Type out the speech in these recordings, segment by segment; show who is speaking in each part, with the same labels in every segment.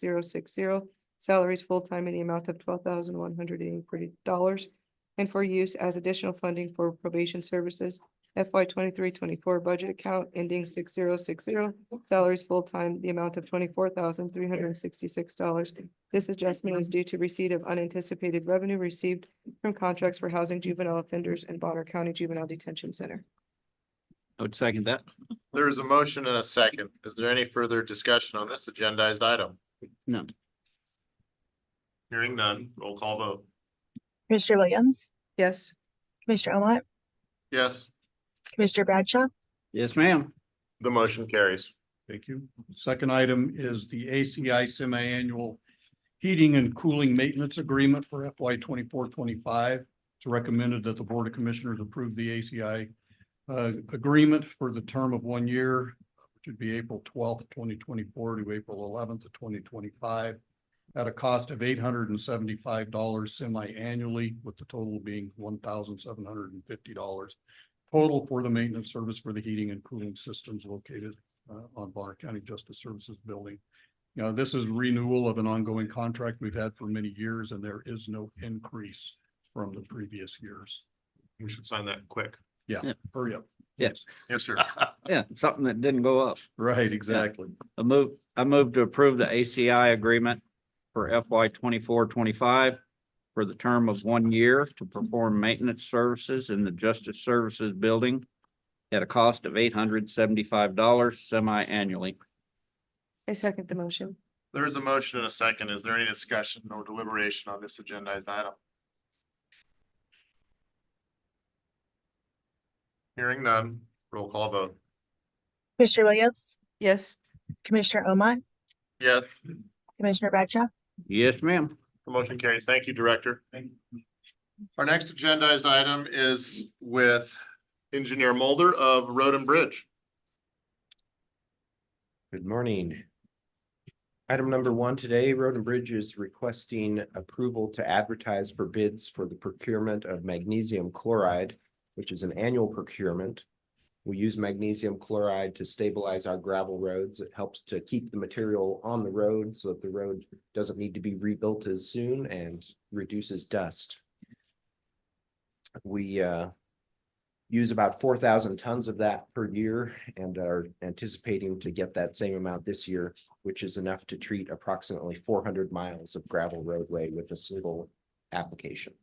Speaker 1: zero six zero. Salaries full-time in the amount of twelve thousand one hundred and forty dollars. And for use as additional funding for probation services FY twenty-three, twenty-four budget account ending six zero six zero. Salaries full-time, the amount of twenty-four thousand three hundred and sixty-six dollars. This adjustment is due to receipt of unanticipated revenue received from contracts for housing juvenile offenders in Bonner County Juvenile Detention Center.
Speaker 2: I would second that.
Speaker 3: There is a motion and a second. Is there any further discussion on this agendized item?
Speaker 2: No.
Speaker 3: Hearing none, roll call vote.
Speaker 4: Commissioner Williams,
Speaker 1: Yes.
Speaker 4: Commissioner Omat,
Speaker 3: Yes,
Speaker 4: Commissioner Bradshaw,
Speaker 2: Yes, ma'am.
Speaker 3: the motion carries.
Speaker 5: Thank you. Second item is the ACI semi-annual heating and cooling maintenance agreement for FY 24-25. It's recommended that the Board of Commissioners approve the ACI uh, agreement for the term of one year, which would be April twelfth, twenty twenty-four to April eleventh of twenty twenty-five at a cost of eight hundred and seventy-five dollars semi-annually, with the total being one thousand seven hundred and fifty dollars total for the maintenance service for the heating and cooling systems located uh, on Bonner County Justice Services Building. You know, this is renewal of an ongoing contract we've had for many years and there is no increase from the previous years.
Speaker 3: We should sign that quick.
Speaker 5: Hurry up.
Speaker 2: Yes.
Speaker 3: Yes, sir.
Speaker 2: Yeah, something that didn't go up.
Speaker 5: Right, exactly.
Speaker 2: I move, I move to approve the ACI agreement for FY twenty-four, twenty-five for the term of one year to perform maintenance services in the Justice Services Building at a cost of eight hundred seventy-five dollars semi-annually.
Speaker 1: I second the motion.
Speaker 3: There is a motion and a second. Is there any discussion or deliberation on this agendized item? Hearing none, roll call vote.
Speaker 4: Commissioner Williams,
Speaker 1: Yes.
Speaker 4: Commissioner Omat,
Speaker 3: Yes,
Speaker 4: Commissioner Bradshaw,
Speaker 2: Yes, ma'am.
Speaker 3: the motion carries. Thank you, Director. Our next agendized item is with Engineer Mulder of Road and Bridge.
Speaker 6: Good morning. Item number one today, Road and Bridge is requesting approval to advertise for bids for the procurement of magnesium chloride, which is an annual procurement. We use magnesium chloride to stabilize our gravel roads. It helps to keep the material on the road so that the road doesn't need to be rebuilt as soon and reduces dust. We uh, use about four thousand tons of that per year and are anticipating to get that same amount this year, which is enough to treat approximately four hundred miles of gravel roadway with a single application.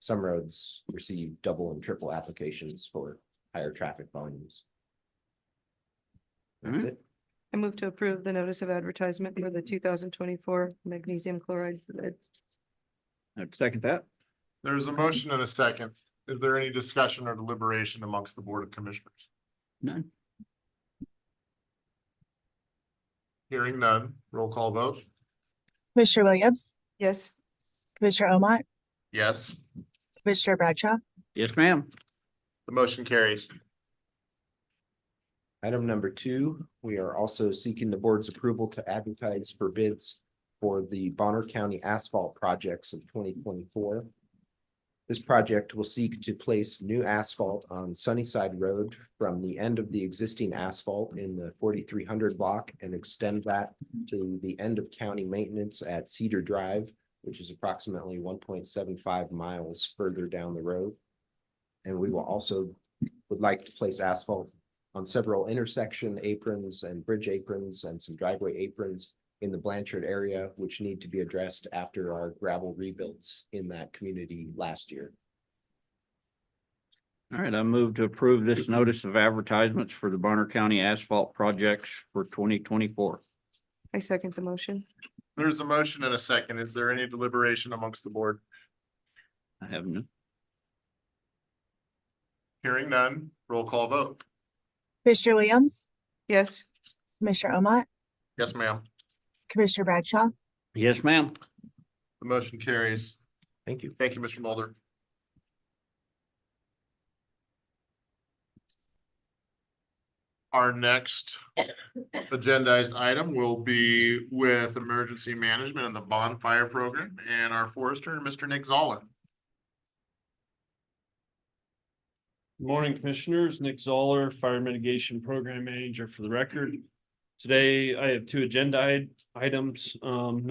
Speaker 6: Some roads receive double and triple applications for higher traffic volumes. That's it.
Speaker 1: I move to approve the notice of advertisement for the two thousand twenty-four magnesium chloride bid.
Speaker 2: I'd second that.
Speaker 3: There is a motion and a second. Is there any discussion or deliberation amongst the Board of Commissioners?
Speaker 2: None.
Speaker 3: Hearing none, roll call vote.
Speaker 4: Commissioner Williams,
Speaker 1: Yes.
Speaker 4: Commissioner Omat,
Speaker 3: Yes,
Speaker 4: Commissioner Bradshaw,
Speaker 2: Yes, ma'am.
Speaker 3: the motion carries.
Speaker 6: Item number two, we are also seeking the board's approval to advertise for bids for the Bonner County asphalt projects of twenty twenty-four. This project will seek to place new asphalt on Sunnyside Road from the end of the existing asphalt in the forty-three hundred block and extend that to the end of county maintenance at Cedar Drive, which is approximately one point seven five miles further down the road. And we will also would like to place asphalt on several intersection aprons and bridge aprons and some driveway aprons in the Blanchard area, which need to be addressed after our gravel rebuilds in that community last year.
Speaker 2: All right, I move to approve this notice of advertisements for the Bonner County asphalt projects for twenty twenty-four.
Speaker 1: I second the motion.
Speaker 3: There is a motion and a second. Is there any deliberation amongst the board?
Speaker 2: I have none.
Speaker 3: Hearing none, roll call vote.
Speaker 4: Commissioner Williams,
Speaker 1: Yes.
Speaker 4: Commissioner Omat,
Speaker 3: Yes, ma'am.
Speaker 4: Commissioner Bradshaw,
Speaker 2: Yes, ma'am.
Speaker 3: The motion carries.
Speaker 6: Thank you.
Speaker 3: Thank you, Mr. Mulder. Our next agendized item will be with emergency management and the bonfire program and our forester, Mr. Nick Zoller.
Speaker 7: Morning Commissioners, Nick Zoller, Fire Mitigation Program Manager for the record.
Speaker 3: Today I have two agenda i- items. Um,